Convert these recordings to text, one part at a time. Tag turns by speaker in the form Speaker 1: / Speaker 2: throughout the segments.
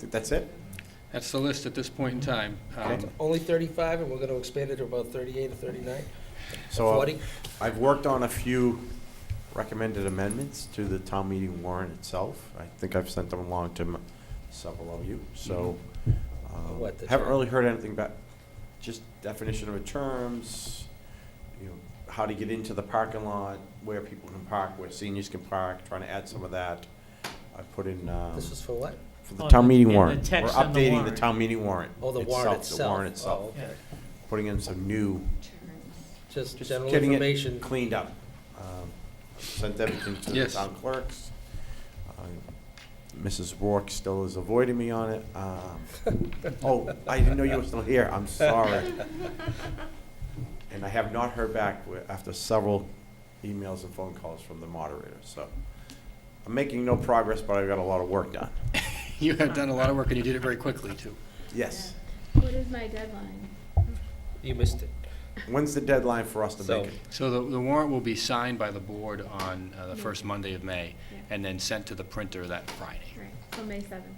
Speaker 1: Th- That's it?
Speaker 2: That's the list at this point in time. Um,
Speaker 1: Okay.
Speaker 3: Only 35, and we're going to expand it to about 38 or 39,
Speaker 1: So uh,
Speaker 3: 40?
Speaker 1: I've worked on a few recommended amendments to the town meeting warrant itself. I think I've sent them along to m- several of you, so. um,
Speaker 3: Mm-hmm. What, the
Speaker 1: Haven't
Speaker 3: term?
Speaker 1: really heard anything about, just definition of terms, you know, how to get into the parking lot, where people can park, where seniors can park, trying to add some of that. I put in, um,
Speaker 3: This is for what?
Speaker 1: for the
Speaker 4: On
Speaker 1: town
Speaker 4: the-
Speaker 1: meeting
Speaker 4: in the
Speaker 1: warrant.
Speaker 4: text on the
Speaker 1: We're updating the
Speaker 4: warrant.
Speaker 1: town meeting warrant.
Speaker 3: Oh, the warrant
Speaker 1: The
Speaker 3: itself.
Speaker 1: warrant itself,
Speaker 3: Oh, okay.
Speaker 1: putting in some new
Speaker 3: Just
Speaker 1: just
Speaker 3: general
Speaker 1: getting it
Speaker 3: information.
Speaker 1: Cleaned up. Um, Sent everything to the
Speaker 2: Yes.
Speaker 1: town clerks. Um, Mrs. Rourke still is avoiding me on it. Um, Oh, I didn't know you were still here, I'm sorry. And I have not heard back wi- after several emails and phone calls from the moderator, so. I'm making no progress, but I've got a lot of work done.
Speaker 2: You have done a lot of work, and you did it very quickly, too.
Speaker 1: Yes.
Speaker 5: What is my deadline?
Speaker 3: You missed it.
Speaker 1: When's the deadline for us to
Speaker 3: So-
Speaker 1: make it?
Speaker 2: So the the warrant will be signed by the board on uh, the first Monday of May, and then sent to the printer that Friday.
Speaker 5: Right, so May seventh.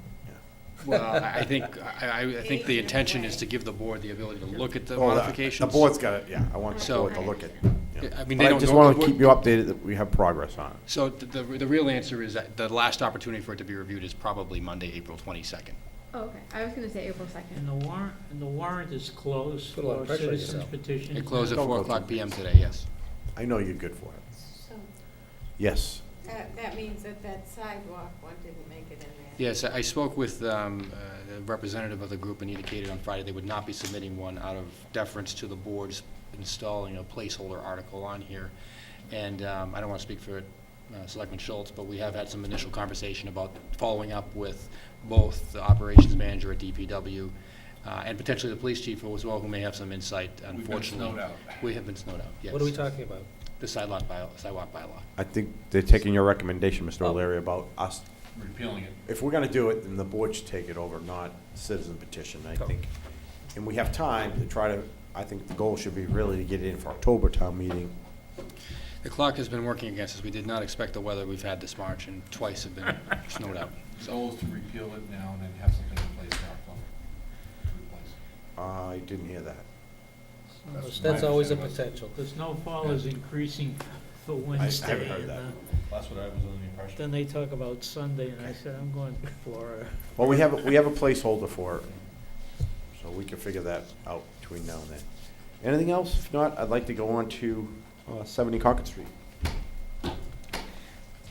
Speaker 2: Well, I I think, uh, I I- I think the intention is to give the board the ability to look at the
Speaker 1: Well,
Speaker 2: modifications.
Speaker 1: The board's got it, yeah, I want the
Speaker 2: So-
Speaker 1: board to look at. yeah.
Speaker 2: I mean,
Speaker 1: But
Speaker 2: they
Speaker 1: I
Speaker 2: don't
Speaker 1: just
Speaker 2: know-
Speaker 1: want to keep you updated that we have progress on it.
Speaker 2: So th- the the real answer is that the last opportunity for it to be reviewed is probably Monday, April 22nd.
Speaker 5: Oh, okay, I was gonna say April
Speaker 4: And
Speaker 5: second.
Speaker 4: the warrant, and the warrant is closed
Speaker 3: Put a lot of
Speaker 4: for
Speaker 3: pressure on
Speaker 4: citizens
Speaker 3: yourself.
Speaker 4: petitions.
Speaker 2: It closed at
Speaker 1: Don't
Speaker 2: 4
Speaker 1: go
Speaker 2: o'clock
Speaker 1: through
Speaker 2: PM today, yes.
Speaker 1: I know you're good for it.
Speaker 6: So,
Speaker 1: Yes.
Speaker 6: that, that means that that sidewalk one didn't make it in there.
Speaker 2: Yes, I I spoke with um, uh, the representative of the group and indicated on Friday they would not be submitting one out of deference to the board's installing a placeholder article on here. And um, I don't want to speak for uh, Selectman Schultz, but we have had some initial conversation about following up with both the operations manager at DPW uh, and potentially the police chief as well, who may have some insight, unfortunately.
Speaker 7: snowed out.
Speaker 2: We have been snowed out, yes.
Speaker 3: What are we talking about?
Speaker 2: The sidewalk bylaw, sidewalk bylaw.
Speaker 1: I think they're taking your recommendation, Mr.
Speaker 2: Oh.
Speaker 1: O'Leary, about us,
Speaker 7: repealing it.
Speaker 1: if we're going to do it, then the board should take it over, not citizen petition, I think. And we have time to try to, I think the goal should be really to get it in for October town meeting.
Speaker 2: The clock has been working against us. We did not expect the weather we've had this March, and twice have been snowed out.
Speaker 7: The goal is to repeal it now and then have something in place in October to replace it.
Speaker 1: I didn't hear that.
Speaker 7: That's
Speaker 3: That's
Speaker 7: my
Speaker 3: always a
Speaker 7: understanding.
Speaker 3: potential.
Speaker 4: The snowfall is increasing for Wednesday.
Speaker 1: heard
Speaker 4: and,
Speaker 1: that.
Speaker 4: uh,
Speaker 7: That's what I was under the impression.
Speaker 4: Then they talk about Sunday, and I said, I'm going to Florida.
Speaker 1: Well, we have, we have a placeholder for it, so we can figure that out between now and then. Anything else? If not, I'd like to go on to uh, 70 Concord Street.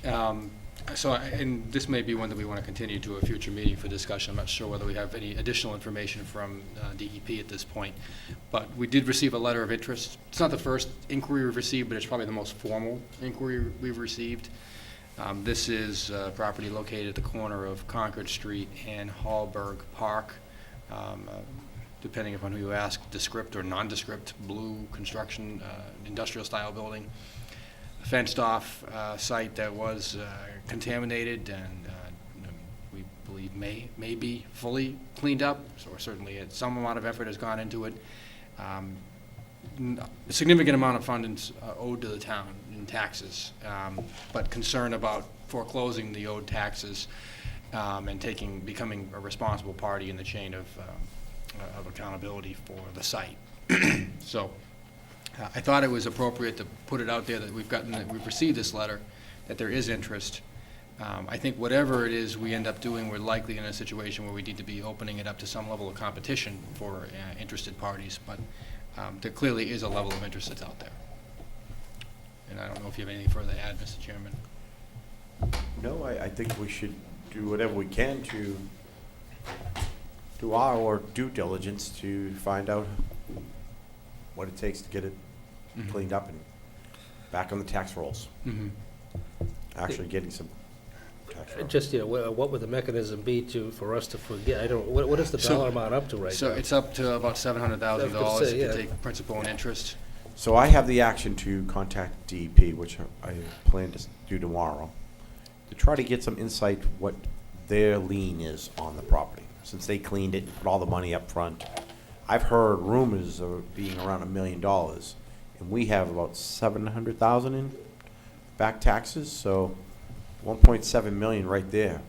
Speaker 2: Um, So, I- and this may be one that we want to continue to a future meeting for discussion. I'm not sure whether we have any additional information from uh, DEP at this point. But we did receive a letter of interest. It's not the first inquiry we've received, but it's probably the most formal inquiry we've received. Um, This is uh, property located at the corner of Concord Street and Hallberg Park. Um, uh, Depending upon who you ask, descript or nondescript, blue construction, uh, industrial-style building fenced-off uh, site that was uh, contaminated and uh, we believe may, may be fully cleaned up, or certainly it- some amount of effort has gone into it. Um, n- a Significant amount of funds uh, owed to the town in taxes, um, but concern about foreclosing the owed taxes um, and taking, becoming a responsible party in the chain of, um, uh, of accountability for the site. So, uh, I thought it was appropriate to put it out there that we've gotten, that we've received this letter, that there is interest. Um, I think whatever it is we end up doing, we're likely in a situation where we need to be opening it up to some level of competition for uh, interested parties, but um, there clearly is a level of interest that's out there. And I don't know if you have anything further to add, Mr. Chairman.
Speaker 1: No, I, I think we should do whatever we can to do our due diligence to find out what it takes to get it cleaned up and back on the tax rolls,
Speaker 2: Mhm.
Speaker 1: actually getting some tax rolls.
Speaker 3: Uh, Just, you know, wha- what would the mechanism be to, for us to forget? I don't, what what is the
Speaker 2: So-
Speaker 3: dollar amount up to right
Speaker 2: So
Speaker 3: now?
Speaker 2: it's up to about seven hundred thousand
Speaker 3: I was gonna
Speaker 2: dollars
Speaker 3: say,
Speaker 2: if you
Speaker 3: yeah.
Speaker 2: take principal and interest.
Speaker 1: So I have the action to contact DEP, which I plan to do tomorrow, to try to get some insight what their lien is on the property, since they cleaned it and put all the money up front. I've heard rumors of it being around a million dollars, and we have about seven hundred thousand in back taxes, so one point seven million right there